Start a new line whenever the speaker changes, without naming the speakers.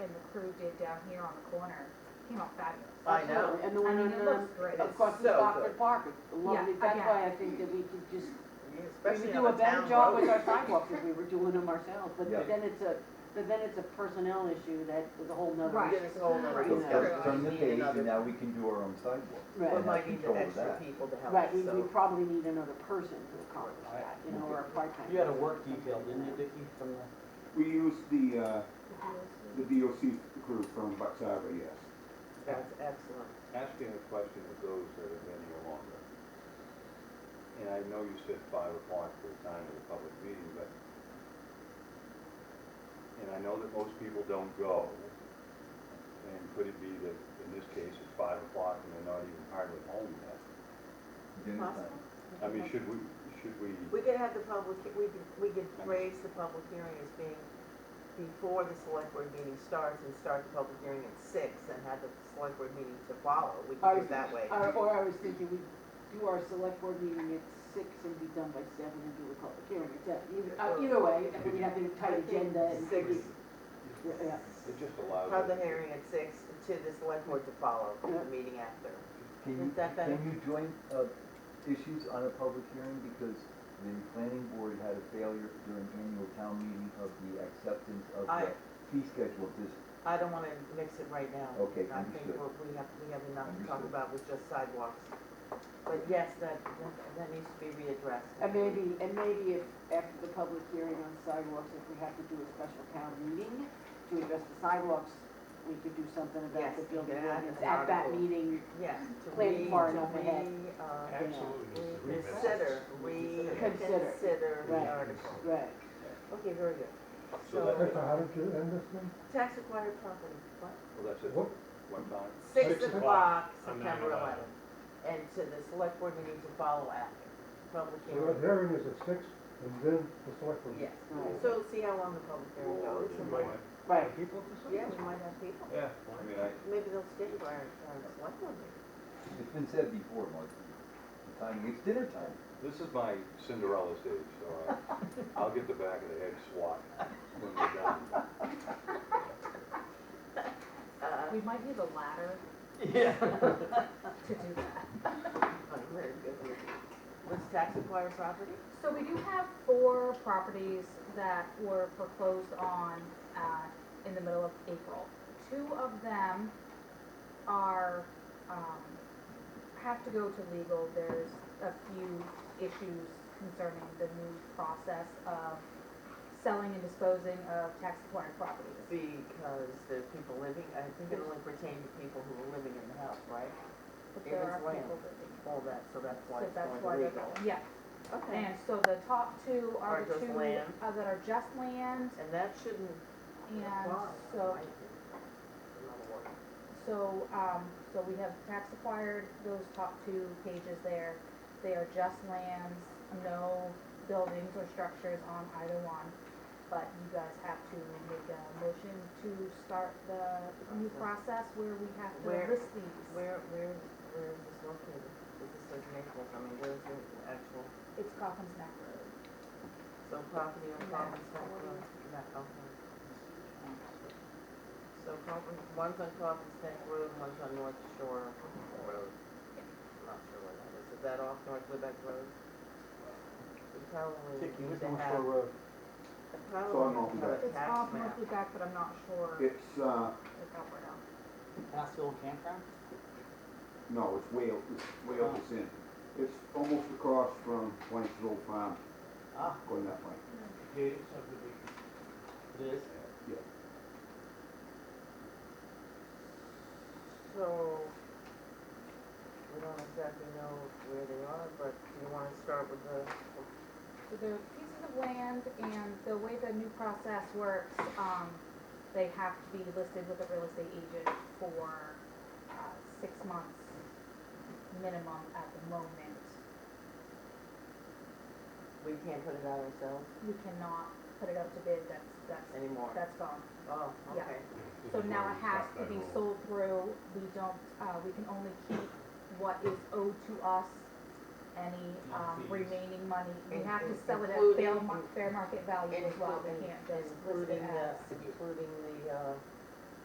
crew did down here on the corner, came out fabulous.
I know.
And the
I
one
mean,
on,
it
um,
looks great.
It is
across from
so
Stockford
good.
Park, it's lovely,
Yeah,
that's
again.
why I think that we could just, we
Especially
could
on
do a better
town
job with
road.
our sidewalks if we were doing them ourselves, but
Yeah.
then it's a, but then it's a personnel issue that is a whole nother.
Right.
Then it's a whole nother
Right.
So
story.
let's turn
We
the
need
page
another-
and now we can do our own sidewalk.
Right.
We
and have
might need
control
an
of
extra
that.
people to help,
Right, we, we
so.
probably need another person to accomplish that, you know, or a part-time.
You had a work detail, didn't you, Dicky, from the?
We use the, uh, the DOC crew from Buxar, yes.
That's excellent.
asking a question of those that have been here longer. And I know you said five o'clock for the time of the public meeting, but, and I know that most people don't go. And could it be that in this case it's five o'clock and they're not even hardly home yet?
Dinner time.
I mean, should we, should we,
We could have the public, we could, we could raise the public hearing as being before the select board meeting starts and start the public hearing at six and have the select board meeting to follow. We could do it that way.
Or, or I was thinking, we do our select board meeting at six and be done by seven and do the public hearing at seven. Either, uh, either way, if we have a tight agenda and.
Six,
Yeah,
it just allows.
have the
us to-
hearing at six to the select board to follow, to the meeting after.
Can you,
Is that better?
can you join, uh, issues on a public hearing because the planning board had a failure during annual town meeting of the acceptance of
I-
the fee schedule of this,
I don't wanna mix it right now.
Okay,
I think
understood.
we're- we have, we have enough to talk
Understood.
about with just sidewalks. But yes, that, that- that needs to be readdressed.
And maybe, and maybe if, after the public hearing on sidewalks, if we have to do a special town meeting to address the sidewalks, we could do something about
Yes,
the
we
building
could add
ordinance
an
at that
article.
meeting.
Yes, to
Planning
re,
far
to
enough ahead.
re, uh,
Absolutely. needs to be missed.
reconsider,
Consider.
reconsider the
Right.
article.
Right.
Okay, very good.
So that-
Mister, how did you end this thing?
Tax acquired property, what?
Well, that's it,
What?
one time.
Six
Six
o'clock,
o'clock on
September
9/11.
eleventh. And to the select board meeting to follow after, public
So the
hearing.
hearing is at six and then the select board.
Yes,
Right.
so see how long the public hearing
Or
goes.
it
and
might-
what-
Right.
People?
Yeah, we might have people.
Yeah.
I mean, I,
Maybe they'll stay by our, our select board meeting.
it's been said before, Mark, the timing, it's dinner time.
This is my Cinderella stage, so I- I'll get the back of the head swat when we're done.
Uh,
Uh, We might need a ladder
Yeah.
to do that.
I'm very good. What's tax acquired property?
So we do have four properties that were foreclosed on, uh, in the middle of April. Two of them are, um, have to go to legal. There's a few issues concerning the new process of selling and disposing of tax acquired properties.
Because the people living, I think it only pertained to people who were living in the house, right?
But
It
there
was
are
land.
people living.
All that, so that's why
So
it's
that's
going
why they're,
legal.
yeah.
Okay,
And so the top two are
Are
the
just
two
land.
uh, that are just land
and that shouldn't
and
apply.
so
I think. Another word.
So, um, so we have tax acquired, those top two pages there. They are just lands, no buildings or structures on either one. But you guys have to make a motion to start the new process where we have
Where-
to list these.
Where, where, where is this located? This is in Naples, I mean, where's the actual,
It's Coffin's Neck Road.
so property on
No.
Coffin's Neck Road? No, okay. So Coffin, one's on Coffin's Neck Road, one's on North Shore Road. Not sure where that is. Is that off North Lubec Road? We probably need
Dicky, who's
to
on
have,
Shore Road?
we
It's on
probably need
North
to have a
It's
tax
off
map.
North back, but I'm not sure if
It's, uh,
that went out.
Pastoral campground?
no, it's way, up- it's way up the end. It's almost across from Blank's Old Farm,
Ah,
going that way.
Gated subdivision.
it is.
So, we don't exactly know where they are, but do you wanna start with the,
So they're pieces of land and the way the new process works, um, they have to be listed with a real estate agent for, uh, six months minimum at the moment.
we can't put it out ourselves
We cannot put it up to bid, that's, that's,
anymore?
that's gone.
Oh,
Yeah.
okay.
So now it has to be sold through, we don't, uh, we can only keep what is owed to us, any, um,
Fees.
remaining money. We
In-
have to
in-
sell it at fair
including-
mar- fair market value as well, we
Including-
can't just list it
Including
as.
the, including the, uh,